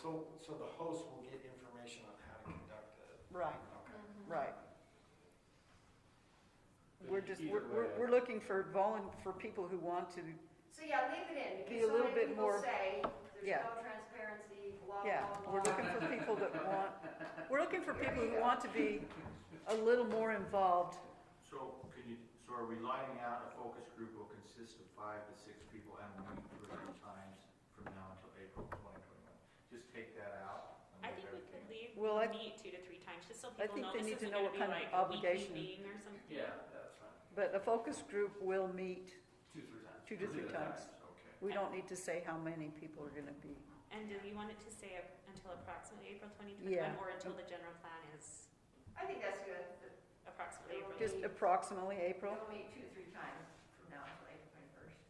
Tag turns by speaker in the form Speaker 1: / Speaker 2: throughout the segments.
Speaker 1: So, so the host will get information on how to conduct it?
Speaker 2: Right,
Speaker 1: Okay.
Speaker 2: right. We're just,
Speaker 3: Either
Speaker 2: we're, we're,
Speaker 3: way, I-
Speaker 2: we're looking for volun, for people who want to,
Speaker 4: So yeah, leave it in,
Speaker 2: Be a
Speaker 4: because so
Speaker 2: little bit
Speaker 4: many people
Speaker 2: more-
Speaker 4: say,
Speaker 2: yeah.
Speaker 4: there's no transparency, blah,
Speaker 2: yeah,
Speaker 4: blah,
Speaker 2: we're
Speaker 4: blah.
Speaker 2: looking for people that want, we're looking for people who want to be a little more involved.
Speaker 3: So can you, so are we lining out a focus group will consist of five to six people and meet two or three times from now until April twenty twenty-one? Just take that out. and
Speaker 5: I
Speaker 3: leave
Speaker 5: think we could
Speaker 3: everything in.
Speaker 5: leave,
Speaker 2: Well, I-
Speaker 5: meet two to three times, just so
Speaker 2: I
Speaker 5: people
Speaker 2: think
Speaker 5: know
Speaker 2: they
Speaker 5: this
Speaker 2: need to
Speaker 5: isn't
Speaker 2: know
Speaker 5: gonna
Speaker 2: what
Speaker 5: be
Speaker 2: kind of
Speaker 5: like a
Speaker 2: obligation.
Speaker 5: weekly thing or something.
Speaker 3: Yeah, that's fine.
Speaker 2: But a focus group will meet,
Speaker 3: Two, three times.
Speaker 2: Two to three times.
Speaker 3: Okay.
Speaker 2: we don't need to say how many people are gonna be.
Speaker 5: And do you want it to say up until approximately April twenty
Speaker 2: Yeah.
Speaker 5: twenty-one, or until the general plan is
Speaker 4: I think that's good, That
Speaker 5: approximately April?
Speaker 2: Just approximately April.
Speaker 4: they'll meet two, to three times from now until April twenty-first.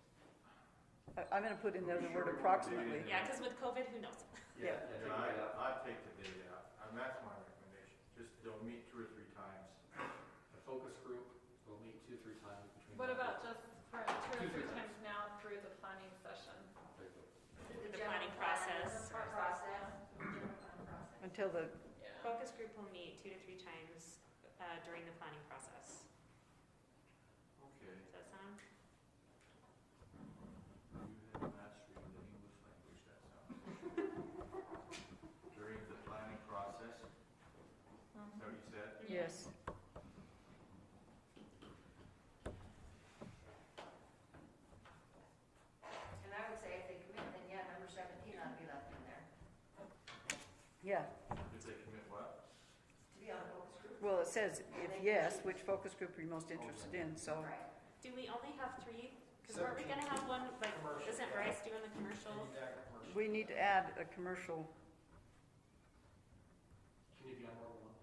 Speaker 2: I- I'm gonna put in there the
Speaker 3: Sure
Speaker 2: word
Speaker 3: we won't do
Speaker 2: approximately.
Speaker 3: anything.
Speaker 5: Yeah, cause with COVID, who knows?
Speaker 2: Yeah.
Speaker 3: Yeah, no, I, I'd take the date out, and that's my recommendation, just they'll meet two or three times.
Speaker 6: A focus group will meet two, three times between.
Speaker 7: What
Speaker 6: now
Speaker 7: about just for two or
Speaker 6: Two, three
Speaker 7: three times now through the planning session?
Speaker 6: and April?
Speaker 5: The planning process.
Speaker 4: Process, general plan process.
Speaker 2: Until the,
Speaker 7: Yeah.
Speaker 5: Focus group will meet two to three times, uh, during the planning process.
Speaker 3: Okay.
Speaker 5: Does that sound?
Speaker 3: You have mastered the English language, that sounds. During the planning process, is that what you said?
Speaker 2: yes,
Speaker 4: And I would say if they commit, then yeah, number seventeen ought to be left in there,
Speaker 2: yeah.
Speaker 3: If they commit what?
Speaker 4: to be on a focus group.
Speaker 2: Well, it says, if yes, which focus group are you most interested in, so.
Speaker 4: Right.
Speaker 5: Do we only have three? Cause weren't we gonna have one, like,
Speaker 1: Commercial,
Speaker 5: isn't
Speaker 1: yeah.
Speaker 5: Bryce doing the commercial?
Speaker 1: Need that commercial.
Speaker 2: We need to add a commercial,
Speaker 6: Can you be on more than one?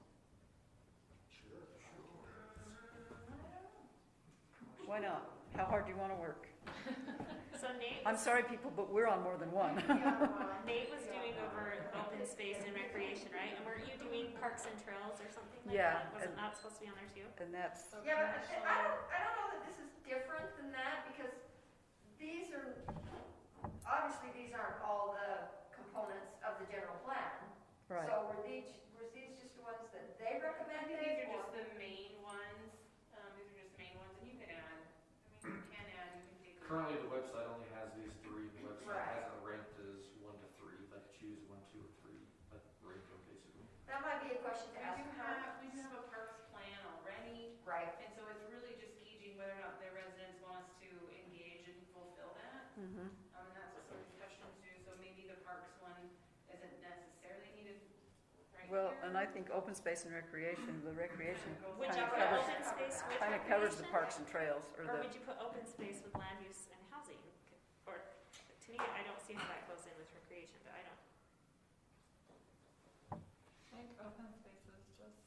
Speaker 1: Sure.
Speaker 2: why not? How hard do you wanna work?
Speaker 5: So Nate
Speaker 2: I'm sorry, people, but we're on more than one.
Speaker 5: Nate was doing over open space and recreation, right? And weren't you doing parks and trails or something like
Speaker 2: Yeah,
Speaker 5: that? Wasn't
Speaker 2: and-
Speaker 5: that supposed to be on there too?
Speaker 2: And that's,
Speaker 7: So
Speaker 4: Yeah, but I- I
Speaker 7: commercial-
Speaker 4: don't, I don't know that this is different than that, because these are, obviously, these aren't all the components of the general plan.
Speaker 2: right,
Speaker 4: So were these, were these just the ones that they
Speaker 8: I think these
Speaker 4: recommended,
Speaker 8: are
Speaker 4: or?
Speaker 8: just the main ones, um, these are just the main ones, and you can add, I mean, you can add, you can take. them out.
Speaker 6: Currently, the website only has these three, the website
Speaker 4: Right.
Speaker 6: has it ranked as one to three, like choose one, two, or three, like rate them basically.
Speaker 4: That might be a question
Speaker 8: We
Speaker 4: to ask
Speaker 8: do
Speaker 4: her.
Speaker 8: have, we do have a parks plan already,
Speaker 4: Right,
Speaker 8: and so it's really just gauging whether or not their residents want us to engage and fulfill that.
Speaker 2: hmm
Speaker 8: Um, and that's what some discussions do, so maybe the parks one isn't necessarily needed right here.
Speaker 2: Well, and I think open space and recreation, the recreation
Speaker 5: Would
Speaker 2: Kinda
Speaker 5: you put
Speaker 2: covers-
Speaker 5: open space with
Speaker 2: kinda covers the
Speaker 5: recreation?
Speaker 2: parks and trails, or
Speaker 5: Or would
Speaker 2: the,
Speaker 5: you put open space with land use and housing? Or, to me, I don't see how that goes in with recreation, but I don't,
Speaker 7: I think open space is just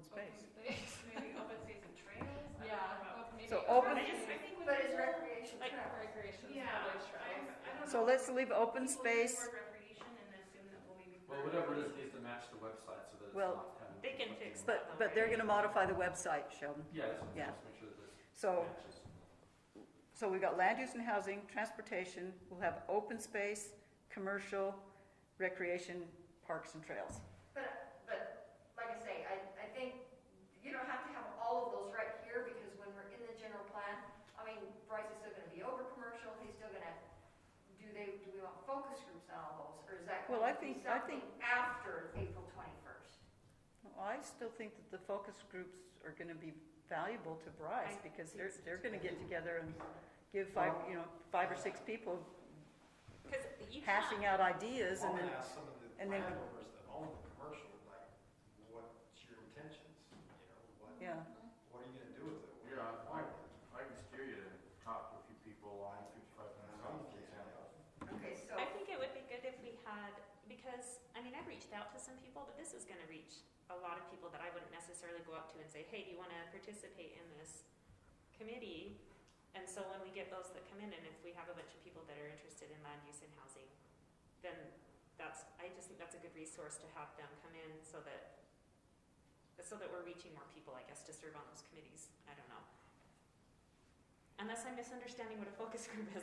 Speaker 7: open
Speaker 2: space.
Speaker 7: space.
Speaker 8: Maybe open space and trails? I don't know
Speaker 7: Yeah.
Speaker 8: about-
Speaker 7: op- maybe
Speaker 2: So open-
Speaker 8: I just, I think. when
Speaker 4: but is
Speaker 8: people-
Speaker 4: recreation
Speaker 5: Like-
Speaker 4: trail?
Speaker 7: Recreation,
Speaker 8: Yeah,
Speaker 7: probably
Speaker 8: I,
Speaker 7: trails.
Speaker 8: I don't know.
Speaker 2: So let's leave open
Speaker 8: People use
Speaker 2: space,
Speaker 8: the word recreation and assume that we'll maybe-
Speaker 6: Well, whatever it is, needs to match the website so that it's
Speaker 2: Well,
Speaker 6: not having.
Speaker 5: they can fix
Speaker 6: conflicting-
Speaker 2: but, but they're gonna modify the website, Sheldon.
Speaker 6: Yeah, that's what I'm
Speaker 2: Yeah.
Speaker 6: saying, just make sure that this
Speaker 2: So,
Speaker 6: matches.
Speaker 2: so we got land use and housing, transportation, we'll have open space, commercial, recreation, parks and trails.
Speaker 4: But, but, like I say, I, I think you don't have to have all of those right here, because when we're in the general plan, I mean, Bryce is still gonna be over commercial, he's still gonna, do they, do we want focus groups on all those, or is that
Speaker 2: Well, I
Speaker 4: going to be
Speaker 2: think- I think-
Speaker 4: something after April twenty-first?
Speaker 2: Well, I still think that the focus groups are gonna be valuable to Bryce,
Speaker 5: I
Speaker 2: because
Speaker 5: think
Speaker 2: they're,
Speaker 5: so
Speaker 2: they're
Speaker 5: too.
Speaker 2: gonna get together and give five, you know, five or six people
Speaker 5: cause you can't,
Speaker 2: hashing out ideas
Speaker 1: I'm
Speaker 2: and then,
Speaker 1: gonna ask some of the
Speaker 2: and then-
Speaker 1: landowners that own the commercial, like, what's your intentions? You know, what,
Speaker 2: yeah.
Speaker 1: what are you gonna do with it? What-
Speaker 3: Yeah, I, I can steer you to talk to a few people on fifty-five minutes off, for example.
Speaker 4: Okay, so,
Speaker 5: I think it would be good if we had, because, I mean, I've reached out to some people, but this is gonna reach a lot of people that I wouldn't necessarily go up to and say, hey, do you wanna participate in this committee? And so when we get those that come in, and if we have a bunch of people that are interested in land use and housing, then that's, I just think that's a good resource to have them come in so that, so that we're reaching more people, I guess, to serve on those committees. I don't know. Unless I'm misunderstanding what a focus group is,